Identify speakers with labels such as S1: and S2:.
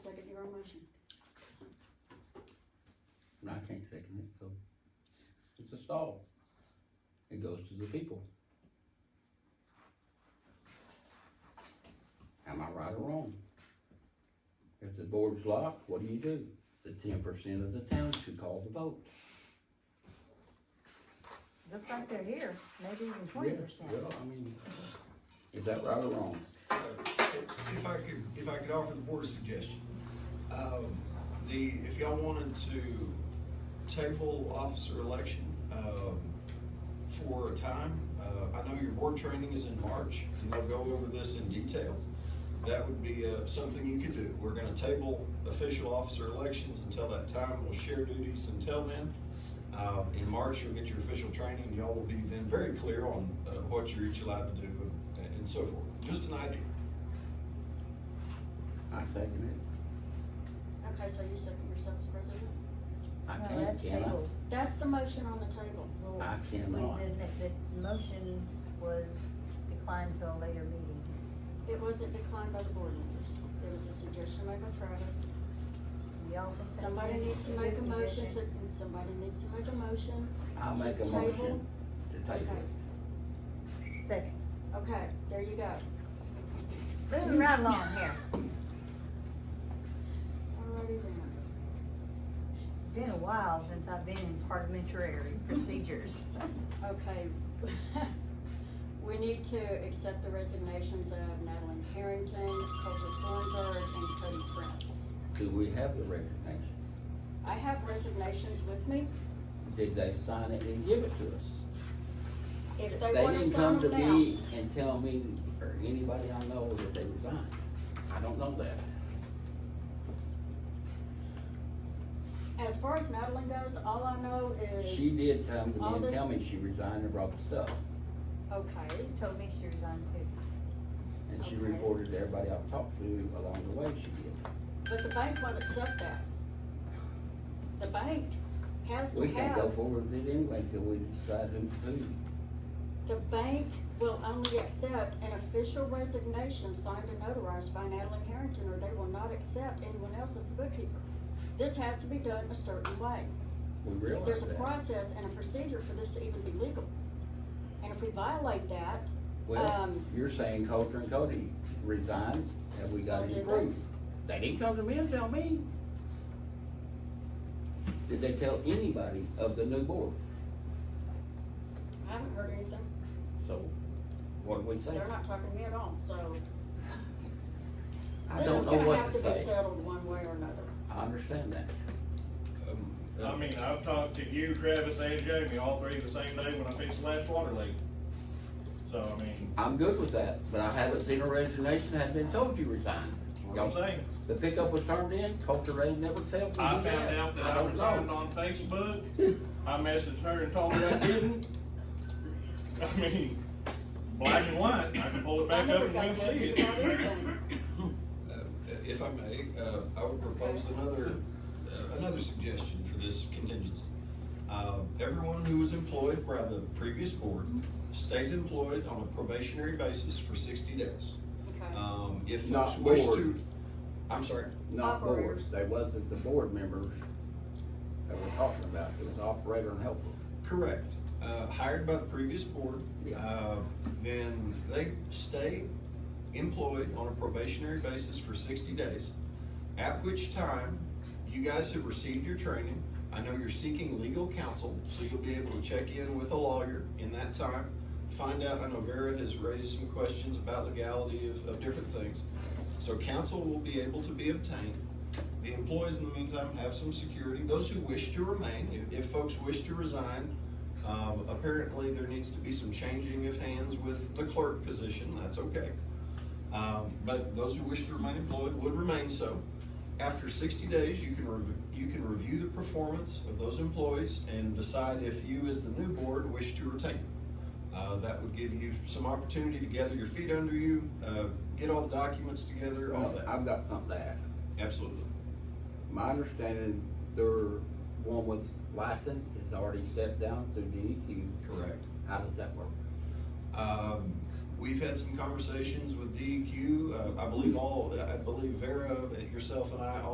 S1: for a motion?
S2: And I can't second it, so it's a stall. It goes to the people. Am I right or wrong? If the board's locked, what do you do? The ten percent of the town should call the vote.
S3: Looks like they're here, maybe even twenty percent.
S2: Yeah, Well, I mean, is that right or wrong?
S4: If I could, if I could offer the board a suggestion, um, the, if y'all wanted to table officer election, um, for a time, uh, I know your board training is in March, and they'll go over this in detail. That would be, uh, something you could do. We're gonna table official officer elections until that time. We'll share duties until then. Uh, in March, you'll get your official training, and y'all will be then very clear on, uh, what you're each allowed to do and, and so forth. Just an idea.
S2: I second it.
S1: Okay, so you second yourself as president?
S2: I
S3: No,
S2: can't,
S3: that's
S2: can
S3: tabled.
S2: I?
S1: That's the motion on the table.
S3: Well,
S2: I
S3: we-
S2: cannot.
S3: The, the motion was declined till a later meeting.
S1: It wasn't declined by the board members. It was a suggestion made by Travis.
S3: We all can say-
S1: Somebody needs to make a motion to, somebody needs to make a motion.
S2: I'll
S1: to
S2: make a
S1: table.
S2: motion to table it.
S3: Second,
S1: Okay, there you go.
S3: moving right along here,
S1: Alrighty then.
S3: it's been a while since I've been in parliamentary procedures.
S1: Okay. We need to accept the resignations of Natalie Harrington, Colter Thornburg, and Cody Prince.
S2: Do we have the resignation?
S1: I have resignations with me.
S2: Did they sign it and give it to us?
S1: If
S2: They
S1: they wanna
S2: didn't
S1: sign
S2: come to
S1: them now.
S2: me and tell me, or anybody I know, that they resigned. I don't know that.
S1: As far as Natalie goes, all I know
S2: She
S1: is,
S2: did come to
S1: all
S2: me and tell
S1: this-
S2: me she resigned and brought the stuff,
S1: okay,
S3: She told me she resigned too.
S2: and she
S1: Okay.
S2: reported to everybody I've talked to along the way she did.
S1: but the bank won't accept that. The bank has to
S2: We can't go
S1: have,
S2: forward with it anyway till we decide who, who.
S1: the bank will only accept an official resignation signed and notarized by Natalie Harrington, or they will not accept anyone else as the bookkeeper. This has to be done a certain way.
S2: We realize
S1: There's a
S2: that.
S1: process and a procedure for this to even be legal. And if we violate that,
S2: Well,
S1: um,
S2: you're saying Coulter and Cody resigned, have we
S1: Oh,
S2: got any
S1: did they?
S2: proof? They didn't come to me and tell me. Did they tell anybody of the new board?
S1: I haven't heard anything.
S2: So, what do we say?
S1: They're not talking to me at all, so.
S2: I
S1: This
S2: don't
S1: is
S2: know
S1: gonna
S2: what
S1: have
S2: to
S1: be
S2: say.
S1: Settled one way or another.
S2: I understand that.
S4: Um,
S5: I mean, I've talked to you, Travis, and Jamie, all three the same day when I fixed the last water leak. So, I mean,
S2: I'm good with that, but I haven't seen a resignation, hasn't been told you resigned.
S5: that's what I'm saying.
S2: The pickup was turned in, Coulter Ray never told me.
S5: I
S2: who
S5: found
S2: had.
S5: out that
S2: Mm-hmm. I
S5: I
S2: don't
S5: resigned
S2: know.
S5: on Facebook. I messaged her and told her I didn't. I mean, black and white, I can pull it
S1: I
S5: back up
S1: never
S5: and
S1: got
S5: we'll see
S1: messages
S5: it.
S1: about anything.
S4: uh, If I may, uh, I would propose another, uh, another suggestion for this contingency. Uh, Everyone who was employed by the previous board stays employed on a probationary basis for sixty days.
S1: Okay,
S4: Um, If
S2: Not
S4: folks wish to,
S2: board.
S4: I'm sorry,
S2: Not
S1: Operators.
S2: boards, they wasn't the board members that we're talking about, it was operator and helper.
S4: correct, uh, hired by the previous board,
S2: Yeah.
S4: uh, then they stay employed on a probationary basis for sixty days, at which time you guys have received your training. I know you're seeking legal counsel, so you'll be able to check in with a lawyer in that time. Find out, I know Vera has raised some questions about legality of, of different things. So counsel will be able to be obtained. The employees in the meantime have some security. Those who wish to remain, if, if folks wish to resign, um, apparently there needs to be some changing of hands with the clerk position, that's okay. Um, but those who wish to remain employed would remain so. After sixty days, you can rev- you can review the performance of those employees and decide if you, as the new board, wish to retain. them. Uh, that would give you some opportunity to gather your feet under you, uh, get all the documents together, all that.
S2: I've got something to add.
S4: Absolutely.
S2: My understanding, their one with license is already stepped down through DEQ.
S4: Correct.
S2: How does that work?
S4: Um, we've had E some conversations with DEQ. Uh, I believe all, I believe Vera, yourself and I, all